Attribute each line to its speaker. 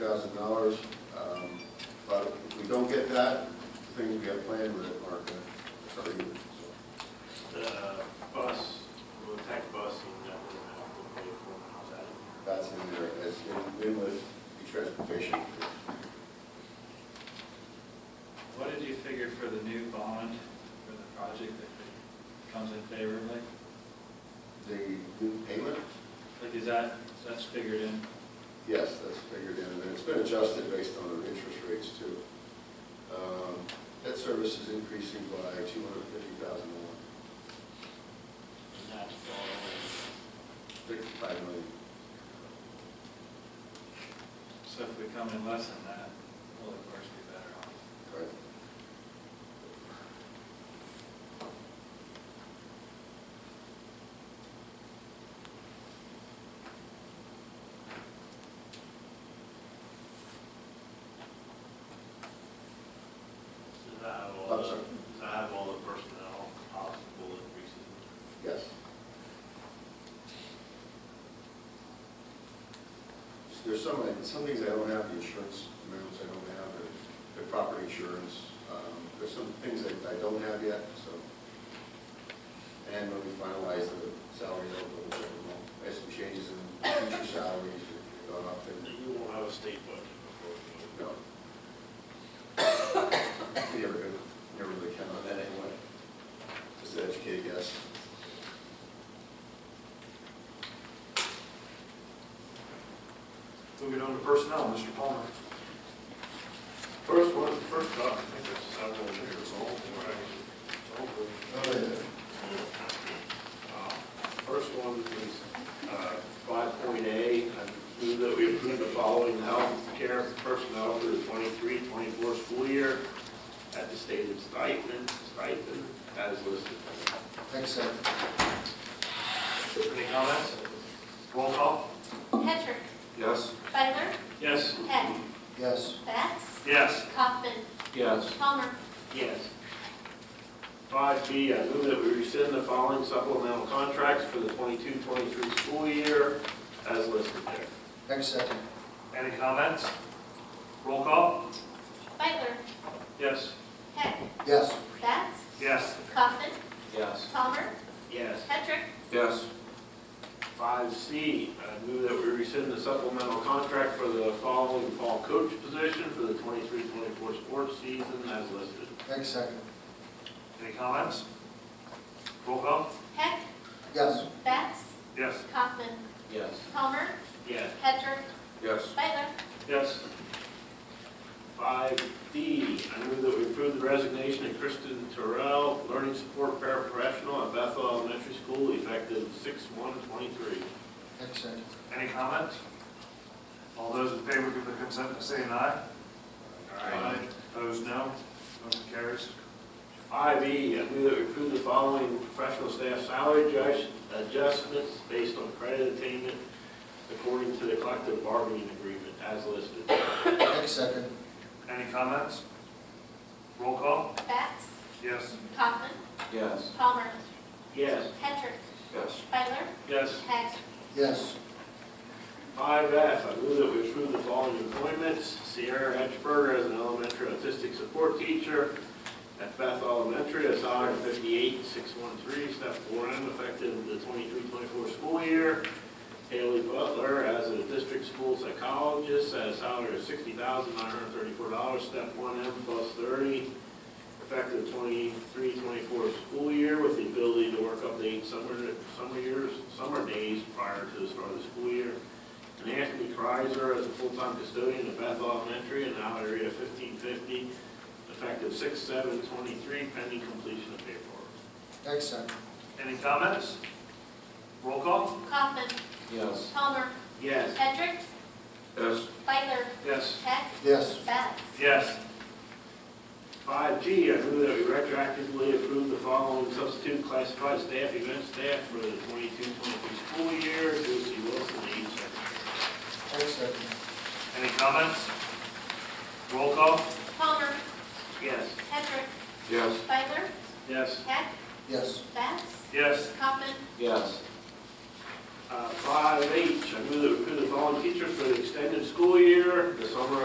Speaker 1: thousand dollars. um, But if we don't get that, the things we have planned with it aren't going to, so.
Speaker 2: The bus, the tech bus, you know, we'll pay for when I was at it.
Speaker 1: That's in there, it's in- in with the transportation.
Speaker 3: What did you figure for the new bond for the project if it comes in favorably?
Speaker 1: The new payment,
Speaker 3: Like, is that, that's figured in?
Speaker 1: yes, that's figured in, and it's been adjusted based on the interest rates too. Um, Debt service is increasing by two hundred fifty thousand dollars,
Speaker 2: And that's all.
Speaker 1: fifty-five million.
Speaker 3: So if we come in less than that, we'll of course be better off.
Speaker 1: Right.
Speaker 2: Does that have all,
Speaker 1: I'm
Speaker 2: the-
Speaker 1: sorry.
Speaker 2: does that have all the personnel possible increases?
Speaker 1: Yes. There's some, some things I don't have, the insurance amounts I don't have, or the property insurance. Um, There's some things that I don't have yet, so. And when we finalize the salary, I'll go over them all. I have some changes in future salaries that have gone up and,
Speaker 2: You won't have a state budget before you
Speaker 1: no. You never, never really count on that anyway. Just an educated guess.
Speaker 4: Moving on to personnel, Mr. Palmer.
Speaker 2: First one, first off, I think there's several years old, right? It's over. Uh, First one is uh, five point A, I move that we approve the following health care personnel for the 23-24 school year at the stated stipend, stipend as listed.
Speaker 1: Thanks, Sam.
Speaker 4: Any comments? Roll call?
Speaker 5: Hedrick,
Speaker 4: Yes.
Speaker 5: Feiler,
Speaker 2: Yes.
Speaker 5: Heck,
Speaker 1: Yes.
Speaker 5: Bats,
Speaker 2: Yes.
Speaker 5: Kaufman,
Speaker 4: Yes.
Speaker 5: Palmer,
Speaker 2: Yes. Five B, I move that we rescind the following supplemental contracts for the 22-23 school year as listed there.
Speaker 1: Thanks, second.
Speaker 4: Any comments? Roll call?
Speaker 5: Feiler,
Speaker 4: Yes.
Speaker 5: Heck,
Speaker 1: Yes.
Speaker 5: Bats,
Speaker 4: Yes.
Speaker 5: Kaufman,
Speaker 4: Yes.
Speaker 5: Palmer,
Speaker 2: Yes.
Speaker 5: Hedrick,
Speaker 4: Yes.
Speaker 2: Five C, I move that we rescind the supplemental contract for the following fall coach position for the 23-24 sports season as listed.
Speaker 1: Thanks, second.
Speaker 4: Any comments? Roll call?
Speaker 5: Heck,
Speaker 1: Yes.
Speaker 5: Bats,
Speaker 4: Yes.
Speaker 5: Kaufman,
Speaker 4: Yes.
Speaker 5: Palmer,
Speaker 2: Yes.
Speaker 5: Hedrick,
Speaker 4: Yes.
Speaker 5: Feiler,
Speaker 4: Yes.
Speaker 2: Five D, I move that we approve the resignation of Kristen Terrell, learning support paraprofessional at Bethel Elementary School effective 6/1/23.
Speaker 1: Thanks, second.
Speaker 4: Any comments? All those in favor give their consent by saying aye. Opposed, no. Motion carries.
Speaker 2: Five E, I move that we approve the following professional staff salary adjust- adjustments based on credit attainment according to the collective bargaining agreement as listed.
Speaker 1: Thanks, second.
Speaker 4: Any comments? Roll call?
Speaker 5: Bats,
Speaker 4: Yes.
Speaker 5: Kaufman,
Speaker 4: Yes.
Speaker 5: Palmer,
Speaker 2: Yes.
Speaker 5: Hedrick,
Speaker 4: Yes.
Speaker 5: Feiler,
Speaker 4: Yes.
Speaker 5: Heck,
Speaker 1: Yes.
Speaker 2: Five F, I move that we approve the following appointments. Sierra Hatchberger as an elementary autistic support teacher at Beth Elementary, a salary of fifty-eight, six one three, step four M, effective the 23-24 school year. Haley Butler as a district school psychologist at a salary of sixty thousand, nine hundred thirty-four dollars, step one M plus thirty, effective 23-24 school year with the ability to work up to eight summer, summer years, summer days prior to the start of the school year. And Anthony Kreiser as a full-time custodian at Beth Elementary in the hourly rate of fifteen fifty, effective six seven twenty-three, pending completion of paperwork.
Speaker 1: Thanks, second.
Speaker 4: Any comments? Roll call?
Speaker 5: Kaufman,
Speaker 4: Yes.
Speaker 5: Palmer,
Speaker 2: Yes.
Speaker 5: Hedrick,
Speaker 4: Yes.
Speaker 5: Feiler,
Speaker 4: Yes.
Speaker 5: Heck,
Speaker 1: Yes.
Speaker 5: Bats,
Speaker 4: Yes.
Speaker 2: Five G, I move that we retroactively approve the following substitute classified staff, event staff for the 22-23 school year, Lucy Wilson, age secretary.
Speaker 1: Thanks, second.
Speaker 4: Any comments? Roll call?
Speaker 5: Palmer,
Speaker 2: Yes.
Speaker 5: Hedrick,
Speaker 4: Yes.
Speaker 5: Feiler,
Speaker 4: Yes.
Speaker 5: Heck,
Speaker 1: Yes.
Speaker 5: Bats,
Speaker 4: Yes.
Speaker 5: Kaufman,
Speaker 4: Yes.
Speaker 2: Uh, Five H, I move that we approve the following teachers for the extended school year, the summer